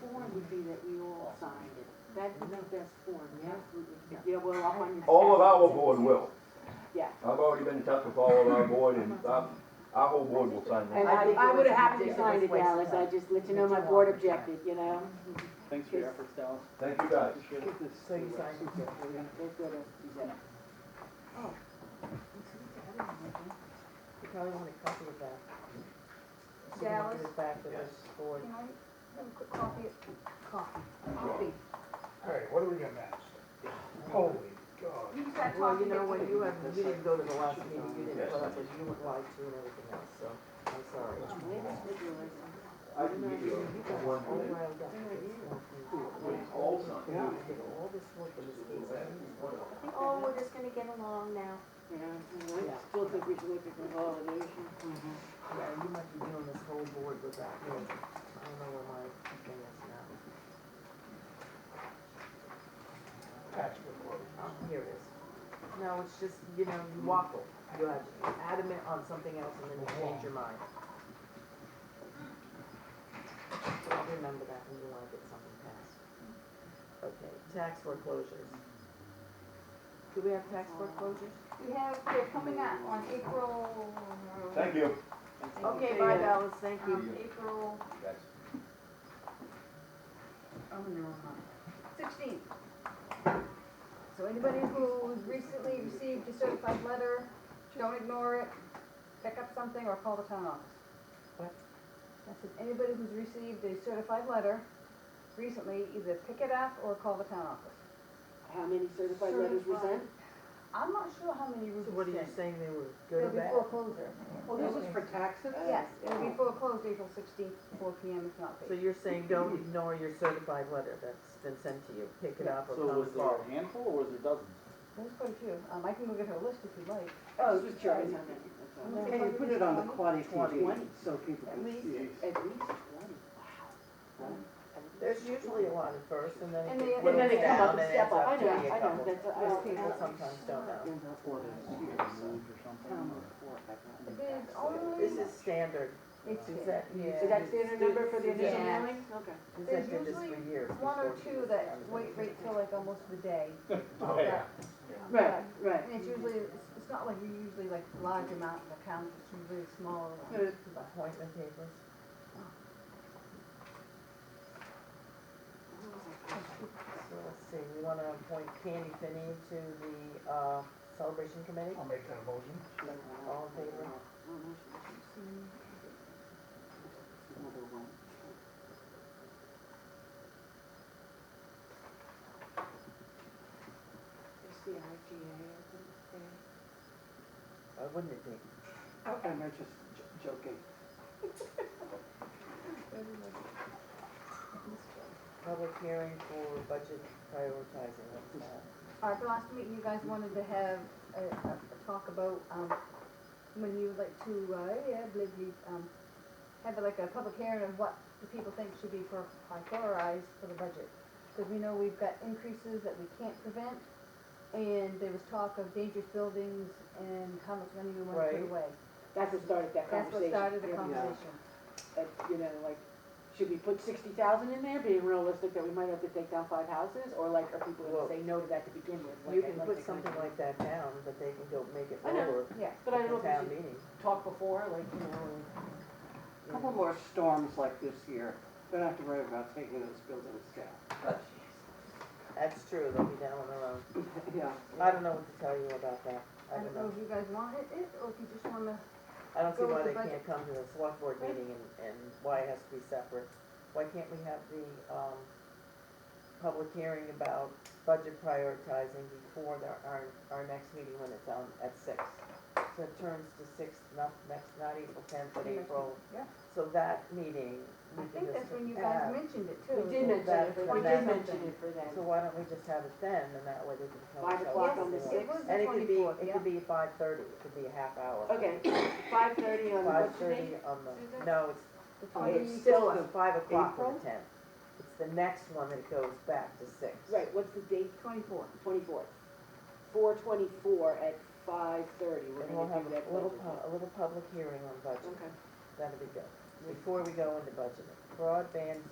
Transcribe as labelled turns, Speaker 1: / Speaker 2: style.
Speaker 1: form would be that we all signed it. That's the best form,
Speaker 2: Yeah.
Speaker 1: absolutely. Yeah, well, up on your.
Speaker 3: All of our board will.
Speaker 1: Yeah.
Speaker 3: I've already been in touch with all of our board and our, our whole board will sign
Speaker 1: And
Speaker 3: that.
Speaker 2: I
Speaker 1: I,
Speaker 2: think
Speaker 1: I
Speaker 2: it
Speaker 1: would
Speaker 2: was a
Speaker 1: have happily signed
Speaker 2: ridiculous
Speaker 1: it,
Speaker 2: waste of
Speaker 1: Alice, I
Speaker 2: time.
Speaker 1: just let you know my
Speaker 2: It's a
Speaker 1: board
Speaker 2: lot of time.
Speaker 1: objected, you know?
Speaker 4: Thanks for your efforts, Dallas.
Speaker 3: Thank you guys.
Speaker 4: Appreciate it.
Speaker 2: So you signed it, yeah.
Speaker 1: That's what it is.
Speaker 2: You probably want a copy of that. So you can
Speaker 5: Dallas,
Speaker 2: give it back to the
Speaker 6: Yes.
Speaker 2: board.
Speaker 5: can I have a quick copy? Coffee. Coffee.
Speaker 6: All right, what are we gonna ask? Holy God.
Speaker 5: You just got coffee.
Speaker 2: Well, you know, when
Speaker 5: that's
Speaker 2: you
Speaker 5: it.
Speaker 2: have, you didn't go to the last meeting, you didn't put up as you would like to and everything else, so I'm sorry.
Speaker 1: Oh, wait, it's ridiculous.
Speaker 3: I can give you a one
Speaker 2: All
Speaker 3: minute.
Speaker 2: around up.
Speaker 3: It's all signed.
Speaker 2: Yeah, I did all this work in this case.
Speaker 5: Oh, we're just gonna get along now.
Speaker 1: Yeah, you know, I still think we should look at consolidation.
Speaker 2: Yeah, you might be doing this whole board without me. I don't know where my thing is now.
Speaker 6: Tax report.
Speaker 2: Oh, here it is. No, it's just, you know, you waffle. You have adamant on something else and then you change your mind. I'll remember that when you wanna get something passed. Okay, tax foreclosures. Do we have tax foreclosures?
Speaker 5: We have, they're coming out on April.
Speaker 3: Thank you.
Speaker 2: Okay, bye Dallas, thank you.
Speaker 5: Um, April
Speaker 1: Oh, no.
Speaker 5: sixteenth. So anybody who recently received a certified letter, don't ignore it, pick up something or call the town office.
Speaker 2: What?
Speaker 5: I said, anybody who's received a certified letter recently, either pick it up or call the town office.
Speaker 1: How many certified letters were sent?
Speaker 5: I'm not sure how many we
Speaker 2: So what are you
Speaker 5: sent.
Speaker 2: saying, they were good or
Speaker 5: It'll be
Speaker 2: bad?
Speaker 5: foreclosure.
Speaker 7: Well, this is for taxes?
Speaker 1: Uh,
Speaker 5: Yes, it'll be foreclosed April sixteenth, four P M if not
Speaker 2: Oh. So
Speaker 5: paid.
Speaker 2: you're saying don't ignore your certified letter that's been sent to you, pick it up or
Speaker 4: So
Speaker 2: come
Speaker 4: was there a
Speaker 2: forward.
Speaker 4: handful or was there dozens?
Speaker 5: There's quite a few. Um, I can go get her a list if you'd like.
Speaker 7: Oh,
Speaker 1: Just
Speaker 7: sorry.
Speaker 1: curious, I mean, that's all.
Speaker 7: Can you put it on the quality TV so people
Speaker 1: At
Speaker 7: can
Speaker 1: least,
Speaker 7: see it?
Speaker 1: at least twenty, wow.
Speaker 2: There's usually a lot at first and then
Speaker 5: And
Speaker 2: it
Speaker 5: they-
Speaker 2: gets
Speaker 5: and then
Speaker 2: whittled
Speaker 5: they come
Speaker 2: down
Speaker 5: up
Speaker 2: and
Speaker 5: and
Speaker 2: ends
Speaker 1: step up. I
Speaker 2: up to be
Speaker 1: know, "Oh,
Speaker 2: a
Speaker 1: I know,
Speaker 2: couple.
Speaker 1: that's- I
Speaker 2: Because
Speaker 1: know.
Speaker 2: people sometimes don't know.
Speaker 7: In the orders here, so
Speaker 4: Dozens or something?
Speaker 1: Town
Speaker 4: or-
Speaker 1: report, I got it.
Speaker 5: There's only.
Speaker 2: This is standard.
Speaker 5: It's
Speaker 2: Is that, yeah.
Speaker 1: Is that standard number for the initial
Speaker 5: Yeah.
Speaker 1: mailing? Okay.
Speaker 2: Is
Speaker 5: There's
Speaker 2: that just for
Speaker 5: usually
Speaker 2: years?
Speaker 5: one or
Speaker 2: before
Speaker 5: two
Speaker 2: you
Speaker 5: that
Speaker 2: start.
Speaker 5: wait, wait till like almost the day.
Speaker 3: Oh,
Speaker 4: yeah.
Speaker 1: Right, right.
Speaker 5: And it's usually, it's it's not like you usually like large amount of accounts, it's usually smaller. ones. But-
Speaker 2: Appointment papers. So let's see, we wanna appoint Candy Finney to the, uh, celebration committee?
Speaker 6: I'll make that a motion.
Speaker 2: All in favor?
Speaker 7: Another one.
Speaker 1: It's the IGA,
Speaker 2: Why wouldn't it be?
Speaker 7: Oh, I'm not just j- joking.
Speaker 2: Public hearing for budget prioritizing, what's that?
Speaker 5: All right, the last meeting, you guys wanted to have a, a a talk about, um, when you would like to, uh, yeah, believe you, um, have like a public hearing of what the people think should be for, prioritized for the budget. Because we know we've got increases that we can't prevent, and there was talk of dangerous buildings and how much money we want to
Speaker 2: Right.
Speaker 5: put away.
Speaker 1: That's what started that
Speaker 5: That's what
Speaker 1: conversation.
Speaker 5: started the
Speaker 1: Yeah.
Speaker 5: conversation.
Speaker 1: Uh, You know, like, should we put sixty thousand in there, being realistic that we might have to take down five houses? Or like, are people
Speaker 2: Well,
Speaker 1: gonna say no to that to begin with? like,
Speaker 2: You
Speaker 1: I'd
Speaker 2: can
Speaker 1: like
Speaker 2: put
Speaker 1: to kind of-
Speaker 2: something like that down, but they can go make it
Speaker 1: I know.
Speaker 2: lower
Speaker 5: Yeah,
Speaker 1: But I
Speaker 2: at
Speaker 1: don't know if
Speaker 2: the
Speaker 1: we
Speaker 2: town
Speaker 1: should
Speaker 2: meeting. Mm-hmm.
Speaker 1: talk before, like, you know,
Speaker 2: you
Speaker 7: Couple
Speaker 2: know.
Speaker 7: more storms like this year, don't have to worry about taking those buildings down.
Speaker 2: That's true, they'll be down on their own.
Speaker 7: Yeah.
Speaker 2: I don't know what to tell you about that.
Speaker 5: I don't know if you guys want it, it, or if you just wanna
Speaker 2: I don't see
Speaker 5: Go
Speaker 2: why
Speaker 5: with
Speaker 2: they
Speaker 5: the
Speaker 2: can't come to the select board
Speaker 1: Right.
Speaker 2: meeting and, and why it has to be separate. Why can't we have the, um, public hearing about budget prioritizing before the, our, our next meeting when it's on, at six? So it turns to six, not, next, not April tenth, but
Speaker 5: Okay, next
Speaker 2: April.
Speaker 5: yeah.
Speaker 2: So that meeting,
Speaker 5: I
Speaker 2: we can
Speaker 5: think
Speaker 2: just
Speaker 5: that's when you
Speaker 2: add.
Speaker 5: guys mentioned it too.
Speaker 1: we did mention
Speaker 2: that
Speaker 1: it,
Speaker 2: for
Speaker 1: for- we
Speaker 2: that.
Speaker 1: did mention it for
Speaker 2: So
Speaker 1: them.
Speaker 2: why don't we just have it then, and that way they can tell us.
Speaker 1: Five o'clock
Speaker 2: how
Speaker 1: on the
Speaker 2: it's
Speaker 5: Yes,
Speaker 2: going.
Speaker 5: it
Speaker 1: sixth?
Speaker 5: was
Speaker 2: And
Speaker 5: the
Speaker 2: it could be,
Speaker 5: twenty-fourth,
Speaker 2: it
Speaker 5: yeah.
Speaker 2: could be five thirty, it could be a half hour.
Speaker 1: Okay, five thirty on
Speaker 2: Five
Speaker 1: what's your
Speaker 2: thirty
Speaker 1: name?
Speaker 2: on the,
Speaker 5: Susan?
Speaker 2: no, it's
Speaker 5: The
Speaker 2: Oh, It's
Speaker 5: 20
Speaker 2: still the five o'clock on
Speaker 1: April?
Speaker 2: the tenth. It's the next one that goes back to six.
Speaker 1: Right, what's the date?
Speaker 5: 24.
Speaker 1: Twenty-fourth. Four twenty-four at five thirty, we're
Speaker 2: And we'll
Speaker 1: gonna
Speaker 2: have
Speaker 1: do that.
Speaker 2: a little,
Speaker 1: budget.
Speaker 2: pu- a little public hearing on budget.
Speaker 1: Okay.
Speaker 2: That'll be good. Before we go into budgeting, broadband